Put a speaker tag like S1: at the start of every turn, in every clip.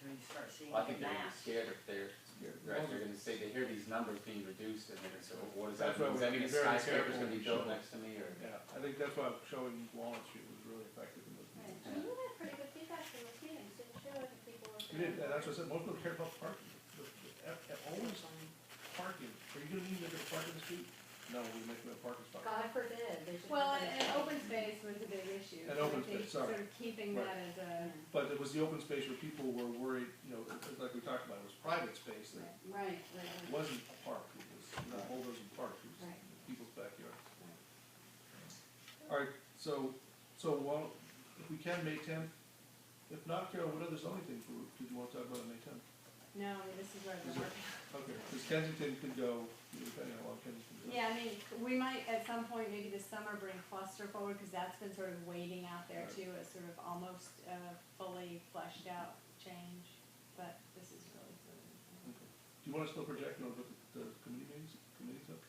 S1: seeing
S2: Well, I think they're gonna
S1: that.
S2: be scared if they're, right, they're gonna say, they hear these numbers being reduced and they're gonna say, well, what does
S3: That's
S2: that mean?
S3: why
S2: Does that
S3: we
S2: mean a
S3: should be very
S2: skyscraper's
S3: careful
S2: gonna be
S3: when
S2: built
S3: showing.
S2: next to me or?
S3: Yeah, I think that's why showing Walnut Street was really effective in those
S4: Right,
S3: meetings.
S4: and we got pretty good feedback from the meetings, it showed that people were.
S3: We did, and that's what I said, most people care about parking, the, the, at- at always parking, are you gonna need them to park in the street? No, we make them a parking spot.
S1: God forbid, they should.
S5: Well,
S1: have an
S5: and, and
S1: issue.
S5: open space was a big issue.
S3: And
S5: so I
S3: open
S5: think
S3: space, sorry.
S5: Sort of keeping
S3: Right.
S5: that as a,
S3: But it was the open space where people were worried, you know, it- it- like we talked about, it was private space that
S5: right, right, right.
S3: wasn't a park, it was not holders and park, it was
S5: Right.
S3: people's backyards. Alright, so, so while, if we can, May tenth, if not, Carol, what other zoning thing for, did you wanna talk about on May tenth?
S5: No, this is where
S3: Is
S5: the
S3: it-
S5: work.
S3: Okay, cause Kensington could go, depending on how long Kensington goes.
S5: Yeah, I mean, we might at some point, maybe this summer, bring cluster forward, cause that's been sort of waiting out there
S3: Right.
S5: too, as sort of almost, uh, fully fleshed out change, but this is really. sort of-
S3: Okay. Do you wanna still project on what the, the committee meetings, committees up?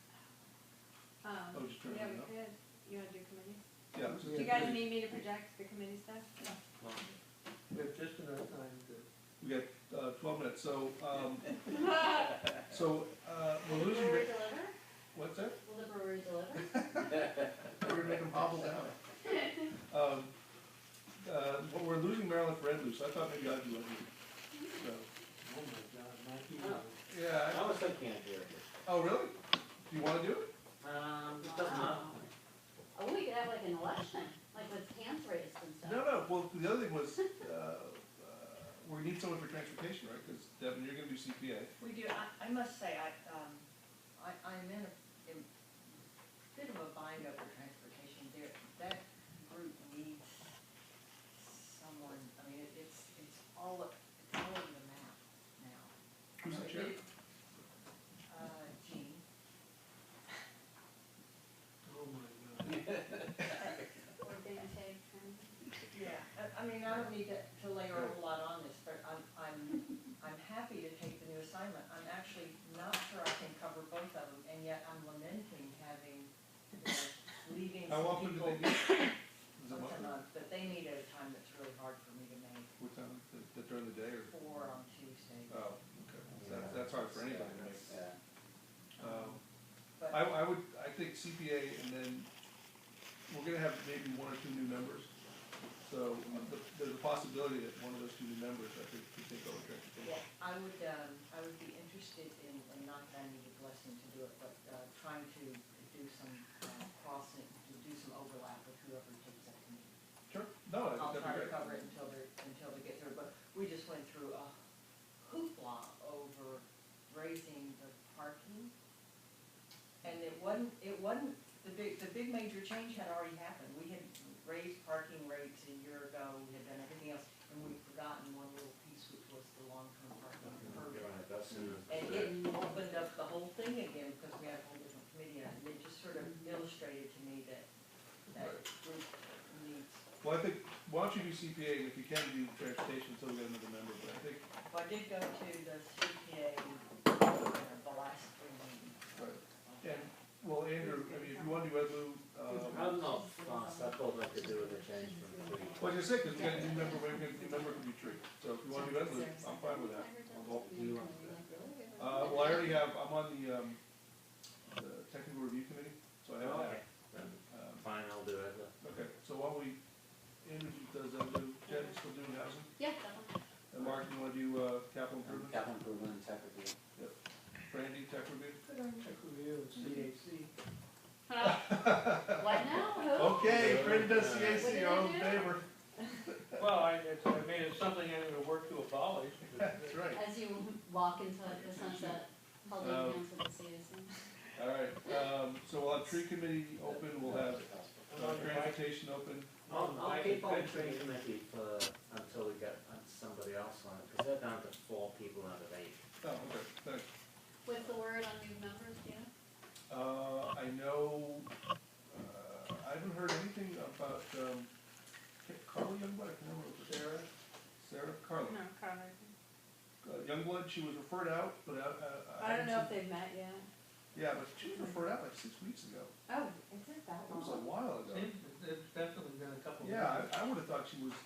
S3: Oh,
S5: Um,
S3: just turn it
S5: yeah, we
S3: up?
S5: could, you wanna do committee?
S3: Yeah. let's just
S5: Do you
S3: do
S5: guys
S3: committee.
S5: need me to project the committee stuff?
S6: We have just enough time to.
S3: We got, uh, twelve minutes, so, um, so, uh, we're
S1: Will the
S3: losing,
S1: brewery
S3: Rick-
S1: deliver?
S3: what's that?
S1: Will the brewery deliver?
S3: We're gonna make them hobble down. Um, uh, well, we're losing Maryland for Ed Lou, so I thought maybe I'd do Ed Lou. So,
S6: Oh my God, Mikey.
S3: yeah,
S2: I
S3: I-
S2: almost like can't hear it.
S3: oh, really? Do you wanna do it?
S2: Um, it doesn't matter.
S1: Wow. Oh, we could have like an election, like with hands raised and stuff.
S3: No, no, well, the other thing was, uh, uh, we need someone for transportation, right? Cause Devin, you're gonna do CPA.
S7: We do, I, I must say, I, um, I, I'm in a, in bit of a bind over transportation there. That group needs someone, I mean, it- it's, it's all, o- it's all over the map now.
S3: Who's the chair?
S7: Uh, Jean.
S6: Oh my God.
S4: Or being taken.
S7: Yeah, I, I mean, I don't need to, to layer a whole lot on this, but I'm, I'm, I'm happy to take the new assignment. I'm actually not sure I can cover both of them, and yet I'm lamenting having, you know, leaving
S3: How
S7: some
S3: often do
S7: people
S3: they do? it? Is
S7: once a
S3: it monthly?
S7: month, but they need at a time that's really hard for me to make,
S3: What time, Th- th- during the day or?
S7: four on Tuesday.
S3: Oh, okay, that's, that's hard for anybody to make.
S2: Yeah.
S3: Um,
S7: But,
S3: I, I would, I think CPA and then, we're gonna have maybe one or two new members. So um, the- there's a possibility that one of those two new members, I think, could take over
S7: yeah,
S3: transportation.
S7: I would, um, I would be interested in, and not that I need a blessing to do it, but, uh, trying to do some, um, crossing, to do some overlap with whoever takes that committee.
S3: Sure, no, I
S7: I'll
S3: think that'd
S7: try
S3: Oh, be
S7: to
S3: great.
S7: cover it until they, until they get through, but we just went through a hoopla over raising the parking. And it wasn't, it wasn't, the big, the big major change had already happened, we had raised parking rates a year ago, we had done everything else, and we'd forgotten one little piece, which was the long-term parking permit. And it opened up the whole thing again, because we had a whole different committee, on it, and it just sort of illustrated to me that, that group needs
S3: Well, I think, why don't you do CPA and if you can do transportation, so we get another member, but I think,
S7: Well, I did go to the CPA, uh, the last three meetings.
S3: and, well, Andrew, I mean, if you wanna do Ed Lou,
S2: I
S3: um,
S2: don't know, if, uh, Suffolk I could do with a change from three.
S3: well, you're sick, cause we got a new member, we got a new member could be true. So if you wanna do Ed Lou, I'm fine with that. I'll vote.
S1: You know, like, really good.
S3: Uh, well, I already have, I'm on the, um, the technical review committee, so I have that. Um,
S2: Fine, I'll do it.
S3: Okay, so while we, Andrew does that, do, Jen, you still doing housing?
S1: Yeah, definitely.
S3: And Mark, you wanna do, uh, capital
S2: Um,
S3: improvement?
S2: Capital improvement and tech review.
S3: Brandy, tech review?
S6: Could I check with you and CAC?
S1: Why now? Who?
S3: Okay, Brandy does
S1: What
S3: CAC,
S1: did
S3: all
S1: I
S3: in
S1: do?
S3: favor?
S6: Well, I, it's, I mean, it's something I'm gonna work to abolish. but-
S3: That's right.
S1: As you walk into the sunset, holding
S3: Um,
S1: hands with the citizens.
S3: All right, um, so we'll have tree committee open, we'll have
S6: I'm
S3: uh,
S6: not invited.
S3: transportation open.
S2: I'll, I'll
S6: I'll
S2: keep on
S6: keep
S2: training committee for, until we get uh, somebody else on it, because they're down to four people out of eight.
S3: Oh, okay, thanks.
S1: What's the word on new members, do you know?
S3: Uh, I know, uh, I haven't heard anything about, um, Carla Youngblood, I can't remember. what it was.
S6: Sarah?
S3: Sarah Carla.
S5: No, Carla.
S3: Uh, Youngblood, she was referred out, but I, I.
S5: I don't know if
S3: haven't
S5: they've met yet.
S3: seen- Yeah, but she was referred out like six weeks ago.
S5: Oh, is it that
S3: It
S5: long?
S3: was a while ago.
S6: It's it's definitely been a couple. of
S3: Yeah, I, I would've thought she was